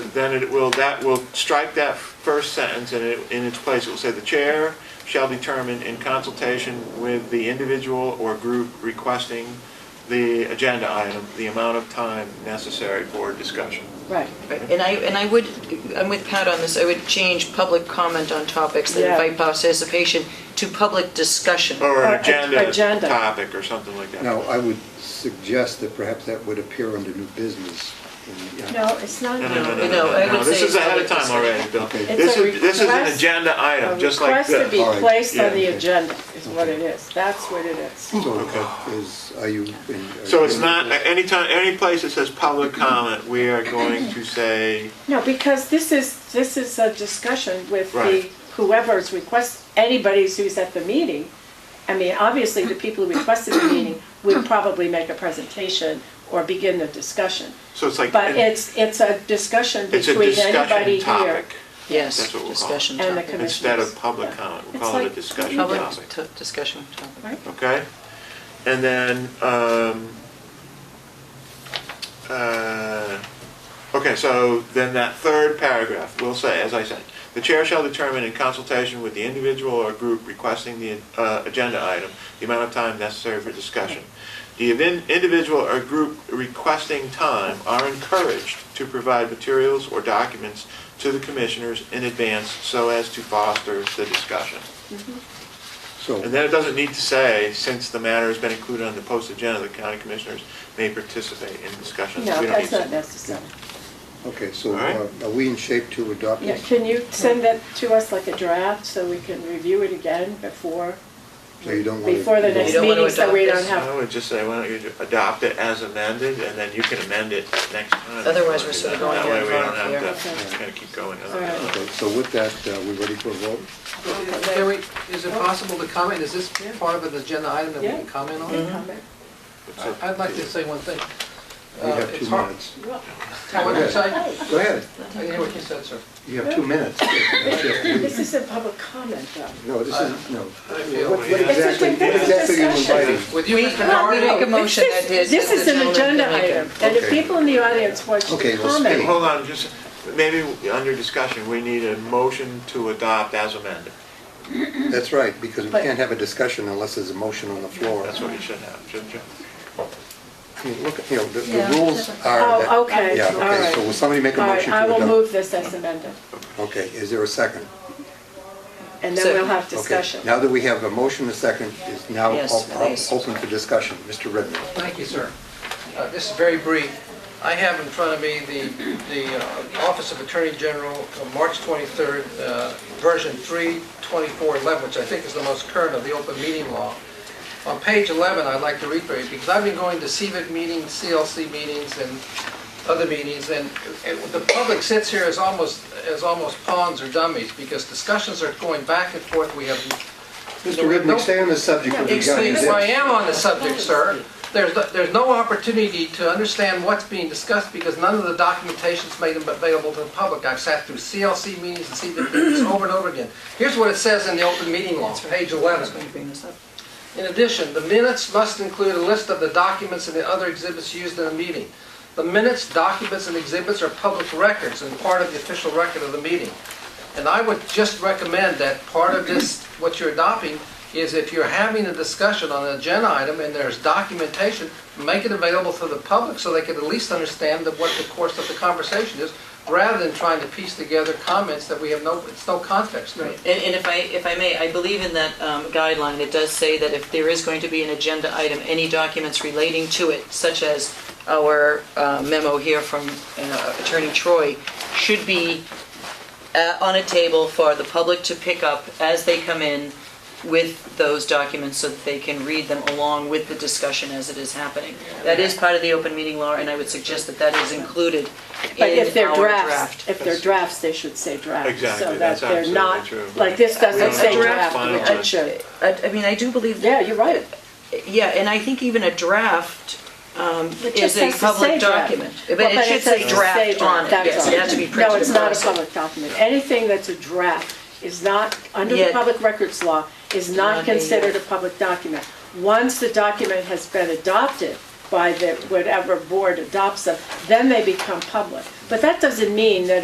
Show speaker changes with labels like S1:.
S1: then it will, that will strike that first sentence and it, in its place, it will say, "The chair shall determine in consultation with the individual or group requesting the agenda item, the amount of time necessary for discussion."
S2: Right.
S3: Right, And I, and I would, I'm with Pat on this, I would change public comment on topics that
S2: Yeah.
S3: invite participation to public discussion.
S1: Or
S2: Or
S1: an
S2: a-
S1: agenda
S2: agenda.
S1: topic or something like that.
S4: Now, I would suggest that perhaps that would appear under new business. in the-
S5: No, it's not.
S1: No, no, no, no,
S3: No,
S1: no,
S3: I
S1: no,
S3: would
S1: This
S3: say
S1: is ahead of
S3: it's
S1: time
S3: public
S1: already, Bill.
S4: Okay.
S1: This
S2: It's a
S1: is, this is an
S2: request-
S1: agenda item, just like
S2: A request to
S1: this.
S2: be
S4: All right.
S2: placed on the
S1: Yeah.
S2: agenda is what it is. That's what it is.
S4: So is, are you? in- are
S1: So
S4: you
S1: it's
S4: in-
S1: not, anytime, any place that says public comment, we are going to say,
S2: No, because this is, this is a discussion with the,
S1: Right.
S2: whoever's request, anybody who's at the meeting. I mean, obviously, the people who requested the meeting would probably make a presentation or begin the discussion.
S1: so it's like.
S2: But it's, it's a discussion
S1: It's a
S2: between anybody
S1: discussion
S2: here.
S1: topic
S3: Yes,
S1: That's what we'll call it.
S3: discussion
S2: And the
S3: topic.
S2: commi-
S1: instead of
S2: Commissioners.
S1: public
S2: Yeah.
S1: comment. We'll
S2: It's
S1: call it a
S2: like-
S1: discussion
S3: Public
S1: topic,
S3: t- discussion topic.
S2: Right.
S1: okay? And then, um, uh, okay, so then that third paragraph, we'll say, as I said, "The chair shall determine in consultation with the individual or group requesting the uh, agenda item, the amount of time necessary for discussion. The evin- individual or group requesting time are encouraged to provide materials or documents to the commissioners in advance so as to foster the discussion." And
S4: So,
S1: then it doesn't need to say, since the matter has been included on the post agenda, the county commissioners may participate in discussions.
S2: No,
S1: We don't
S2: that's
S1: need to-
S2: not necessary.
S4: okay, so uh,
S1: All right.
S4: are are we in shape to adopt
S2: Yeah,
S4: this?
S2: can you send that to us like a draft so we can review it again before,
S4: So you don't want to?
S2: before the next
S3: don't wanna
S2: meeting, so we
S3: adopt
S2: don't
S3: this.
S2: have
S1: I would just say, why don't you adopt it as amended, and then you can amend it next time.
S3: Otherance, we're sort of going
S1: That way, we
S3: down
S1: don't
S3: here.
S1: have to
S2: Okay.
S1: kind of keep going
S2: All
S1: on.
S2: right.
S4: Okay, so with that, uh, we ready for a vote?
S6: Can we, is it possible to comment, is this part of an agenda item that we
S2: Yeah. Mm-hmm.
S6: can comment
S3: Mm-hmm.
S6: on?
S2: comment.
S1: So-
S6: I'd like to say one thing.
S4: We
S6: Uh,
S4: have
S6: it's
S4: two
S6: hard-
S4: minutes.
S6: What did you say? I
S4: Go ahead,
S6: didn't hear what you said, sir.
S4: you have two minutes. That's it.
S2: This is a public comment, though.
S4: No, this is, no.
S6: I feel
S4: What
S1: It's
S4: what
S6: we-
S2: a
S4: exactly, what
S2: different
S4: exactly are you
S2: discussion.
S4: inviting?
S6: With you, Mr.
S3: We
S6: Nardi,
S3: make a motion
S2: This
S3: that
S2: is-
S3: is.
S2: This is an agenda item, and if
S4: Okay.
S2: people in the audience want to
S4: Okay, well,
S1: Hey,
S4: speak.
S2: comment,
S1: Hold on, just, maybe under discussion, we need a motion to adopt as amended.
S4: That's right, because we
S2: But-
S4: can't have a discussion unless there's a motion on the floor.
S1: That's what you should have, shouldn't you?
S4: I mean, look, you know, the- the
S5: Yeah.
S4: rules are that...
S2: oh, okay,
S4: Yeah,
S2: all
S4: okay,
S2: right.
S4: so will somebody make a
S2: All right,
S4: motion to
S2: I
S4: adopt?
S2: will move this as amended,
S4: Okay, is there a second?
S2: and then
S3: So-
S2: we'll have
S4: Okay,
S2: discussion.
S4: Now that we have a motion, a second is now
S3: Yes,
S4: op- op-
S3: please.
S4: open for discussion. Mr. Redmond.
S6: Thank you, sir. Uh, This is very brief. I have in front of me the, the uh, Office of Attorney General, uh, March 23rd, uh, version 32411, which I think is the most current of the open meeting law. On page 11, I'd like to read for you, because I've been going to CVIC meetings, CLC meetings, and other meetings, and and the public sits here as almost, as almost pawns or dummies, because discussions are going back and forth. We have
S4: Mr. Redmond, stay on the subject of the
S6: Excuse me, I
S4: guidance.
S6: am on the subject, sir. There's, no- there's no opportunity to understand what's being discussed because none of the documentation's made available to the public. I've sat through CLC meetings and CDP meetings over and over again. Here's what it says in the open meeting law, page 11.
S3: going to bring this up.
S6: In addition, the minutes must include a list of the documents and the other exhibits used in a meeting. The minutes, documents, and exhibits are public records and part of the official record of the meeting. And I would just recommend that part of this, what you're adopting, is if you're having a discussion on an agenda item and there's documentation, make it available to the public so they can at least understand that what the course of the conversation is, rather than trying to piece together comments that we have no, it's no context to.
S3: Right, and, and if I, if I may, I believe in that um, guideline, it does say that if there is going to be an agenda item, any documents relating to it, such as our uh, memo here from uh, Attorney Troy, should be uh, on a table for the public to pick up as they come in with those documents so that they can read them along with the discussion as it is happening. That is part of the open meeting law, and I would suggest that that is included
S2: But
S3: in
S2: if they're
S3: our
S2: drafts,
S3: draft.
S2: if they're drafts, they should say draft.
S1: Exactly,
S2: So that
S1: that's
S2: they're not,
S1: absolutely true.
S2: like, this
S1: We don't
S2: doesn't say
S1: have to
S2: draft, which it
S1: finalize.
S2: should.
S3: I, I mean, I do believe that
S2: Yeah, you're right.
S3: Yeah, and I think even a draft um,
S2: It
S3: is
S2: just
S3: a
S2: has to say
S3: public
S2: draft.
S3: document.
S2: Well,
S3: But it should say
S2: says
S3: draft on it,
S2: that's
S3: yes,
S2: all.
S3: it has to be printed.
S2: No, it's not a
S3: across.
S2: public document. Anything that's a draft is not, under the
S3: Yeah.
S2: public records law, is not
S3: Not a-
S2: considered a public document. Once the document has been adopted by the, whatever board adopts them, then they become public. But that doesn't mean that